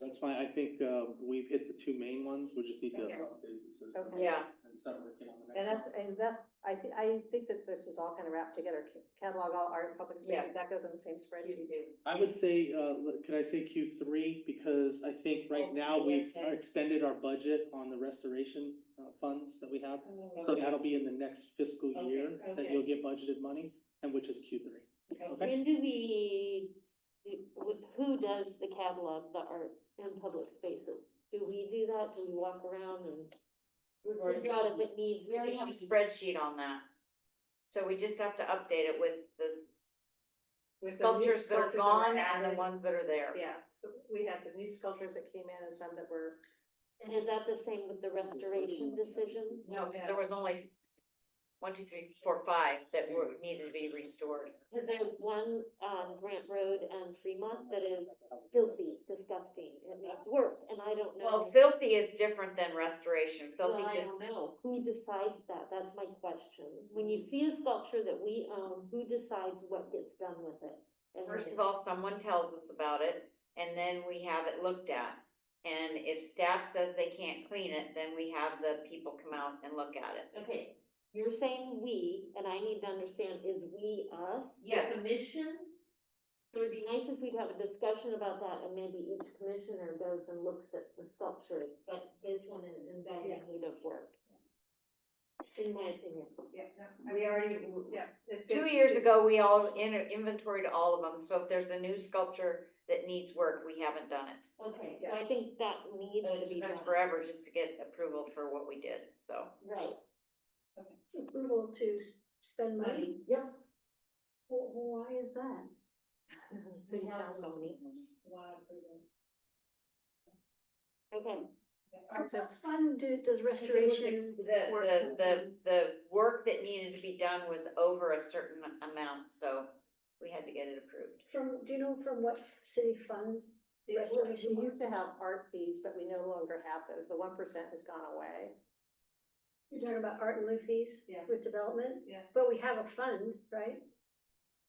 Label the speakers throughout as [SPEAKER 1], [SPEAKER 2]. [SPEAKER 1] That's fine, I think, uh, we've hit the two main ones, we just need to.
[SPEAKER 2] Okay.
[SPEAKER 1] update the system
[SPEAKER 2] Okay. Yeah.
[SPEAKER 1] And start working on the
[SPEAKER 2] And
[SPEAKER 1] next
[SPEAKER 2] that's,
[SPEAKER 1] one.
[SPEAKER 2] and that's, I thi- I think that this is all kind of wrapped together, Ca- catalog all art, public spaces, that goes in the same spreadsheet.
[SPEAKER 1] I would say, uh, l- could I say Q three, because I think right
[SPEAKER 3] Oh,
[SPEAKER 1] now we've
[SPEAKER 3] okay.
[SPEAKER 1] extended our budget on the restoration, uh, funds that we have. So that'll be in the next fiscal
[SPEAKER 3] Okay,
[SPEAKER 1] year that
[SPEAKER 3] okay.
[SPEAKER 1] you'll get budgeted money, and which is Q three. Okay.
[SPEAKER 4] When do we, who does the catalog, the art in public spaces? Do we do that? Do we walk around and
[SPEAKER 3] We've already-
[SPEAKER 4] figure out if it needs?
[SPEAKER 5] We already have a spreadsheet on that. So we just have to update it with the
[SPEAKER 2] With the new
[SPEAKER 5] sculptures that are
[SPEAKER 2] sculptures
[SPEAKER 5] gone and the
[SPEAKER 2] added.
[SPEAKER 5] ones that are there.
[SPEAKER 2] Yeah, we have the new sculptures that came in and some that were,
[SPEAKER 4] And is that the same with the restoration decision?
[SPEAKER 5] No, 'cause there was only one, two, three, four, five that were, needed to be restored.
[SPEAKER 4] Cause there's one on Grant Road and Fremont that is filthy, disgusting, and it's worse, and I don't
[SPEAKER 5] Well,
[SPEAKER 4] know.
[SPEAKER 5] filthy is different than restoration.
[SPEAKER 4] Well,
[SPEAKER 5] Filthy
[SPEAKER 4] I
[SPEAKER 5] just,
[SPEAKER 4] don't know, who decides that? That's my question. When you see a sculpture that we own, who decides what gets done with it? And when
[SPEAKER 5] first
[SPEAKER 4] it's
[SPEAKER 5] of all, someone tells us about it and then we have it looked at. And if staff says they can't clean it, then we have the people come out and look at it.
[SPEAKER 4] Okay, you're saying we, and I need to understand, is we us? the
[SPEAKER 5] Yes.
[SPEAKER 4] Commission? So it'd be nice if we'd have a discussion about that, and maybe each commissioner goes and looks at the sculptures, but this one is in bad need of work. In my opinion.
[SPEAKER 2] yeah.
[SPEAKER 4] We already.
[SPEAKER 2] Yeah. it's
[SPEAKER 5] Two
[SPEAKER 2] been-
[SPEAKER 5] years ago, we all in- inventoried all of them, so if there's a new sculpture that needs work, we haven't done it.
[SPEAKER 4] Okay, so I think that needs
[SPEAKER 5] It
[SPEAKER 4] to be
[SPEAKER 5] took us
[SPEAKER 4] done,
[SPEAKER 5] forever just to get approval for what we did, so.
[SPEAKER 4] right.
[SPEAKER 6] approval to s- spend money.
[SPEAKER 4] Yep.
[SPEAKER 6] Wh- Why is that?
[SPEAKER 5] Mm-hmm.
[SPEAKER 4] City council meeting. Okay.
[SPEAKER 6] How much fun do, does restoration?
[SPEAKER 5] The,
[SPEAKER 6] work
[SPEAKER 5] the, the,
[SPEAKER 6] happen?
[SPEAKER 5] the work that needed to be done was over a certain amount, so we had to get it approved.
[SPEAKER 6] From, do you know from what city fund?
[SPEAKER 2] We
[SPEAKER 6] restoration
[SPEAKER 2] we
[SPEAKER 6] was?
[SPEAKER 2] used to have art fees, but we no longer have those, the one percent has gone away.
[SPEAKER 6] You're talking about art and lieu fees?
[SPEAKER 3] Yeah.
[SPEAKER 6] With development?
[SPEAKER 3] Yeah.
[SPEAKER 6] But we have a fund, right?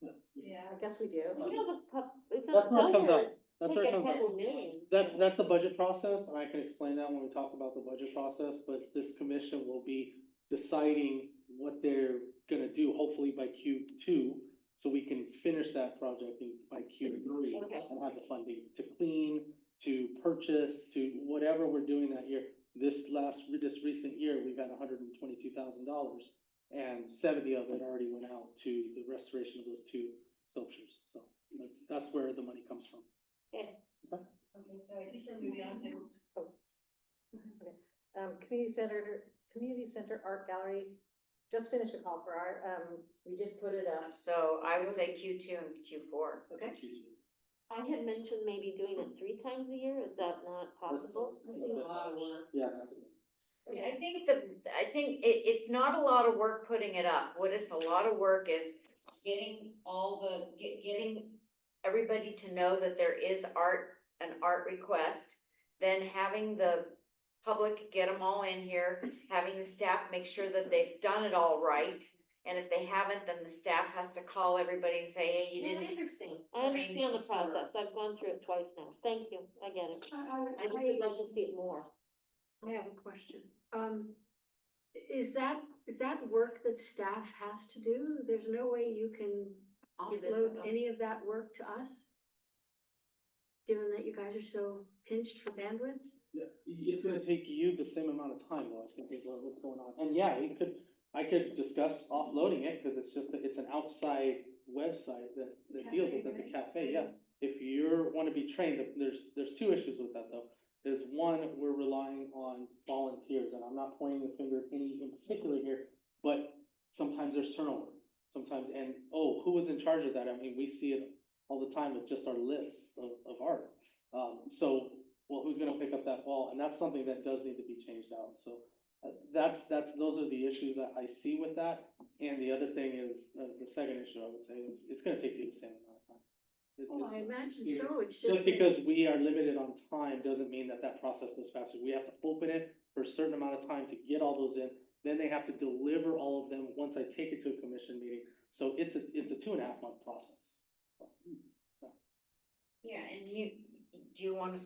[SPEAKER 3] Yeah.
[SPEAKER 2] I guess we do.
[SPEAKER 4] You have a cup, it's a.
[SPEAKER 1] That's where it comes up,
[SPEAKER 4] dollar.
[SPEAKER 1] that's where it
[SPEAKER 4] Like a
[SPEAKER 1] comes up.
[SPEAKER 4] couple million.
[SPEAKER 1] That's, that's the budget process, and I can explain that when we talk about the budget process, but this commission will be deciding what they're gonna do, hopefully by Q two, so we can finish that project in- by Q three.
[SPEAKER 4] Okay.
[SPEAKER 1] And have the funding to clean, to purchase, to whatever we're doing that year. This last, this recent year, we've had hundred and twenty-two thousand dollars, and seventy of it already went out to the restoration of those two sculptures, so that's, that's where the money comes from.
[SPEAKER 3] Okay, so I just moved on to-
[SPEAKER 2] Oh. Um, community center, community center art gallery, just finished a call for art, um,
[SPEAKER 3] We just put it up.
[SPEAKER 5] So I would say Q two and Q four.
[SPEAKER 3] Okay.
[SPEAKER 1] Q2.
[SPEAKER 4] I had mentioned maybe doing it three times a year, is that not possible?
[SPEAKER 1] Yeah, that's,
[SPEAKER 5] I think the, I think it, it's not a lot of work putting it up. What is a lot of work is getting all the, get, getting everybody to know that there is art, an art request, then having the public get them all in here, having the staff make sure that they've done it all right. And if they haven't, then the staff has to call everybody and say, hey, you
[SPEAKER 4] No, I
[SPEAKER 5] didn't.
[SPEAKER 4] understand, I understand the process, I've gone through it twice now, thank you, I get it. I just would like to see it more.
[SPEAKER 6] I have a question. Um, is that, is that work that staff has to do? There's no way you can offload any of that work to us? Given that you guys are so pinched for bandwidth?
[SPEAKER 1] Yeah, it's gonna take you the same amount of time though, I think is what- what's going on. And yeah, it could, I could discuss offloading it, cause it's just, that it's an outside website that, that deals with it, the cafe, yeah. If you're, wanna be trained, th- there's, there's two issues with that though. There's one, we're relying on volunteers, and I'm not pointing the finger at any in particular here, but sometimes there's turnover. Sometimes, and, oh, who was in charge of that? I mean, we see it all the time with just our lists of, of art. Um, so well, who's gonna pick up that ball? And that's something that does need to be changed out, so. uh, That's, that's, those are the issues that I see with that, and the other thing is, uh, the second issue I would say is, it's gonna take you the same amount of time. It-
[SPEAKER 6] Oh,
[SPEAKER 1] it-
[SPEAKER 6] I imagine
[SPEAKER 1] it's-
[SPEAKER 6] so, it's just.
[SPEAKER 1] Just because we are limited on time doesn't mean that that process goes faster, we have to open it for a certain amount of time to get all those in, then they have to deliver all of them once I take it to a commission meeting, so it's a, it's a two and a half month process.
[SPEAKER 5] Yeah, and you, do you wanna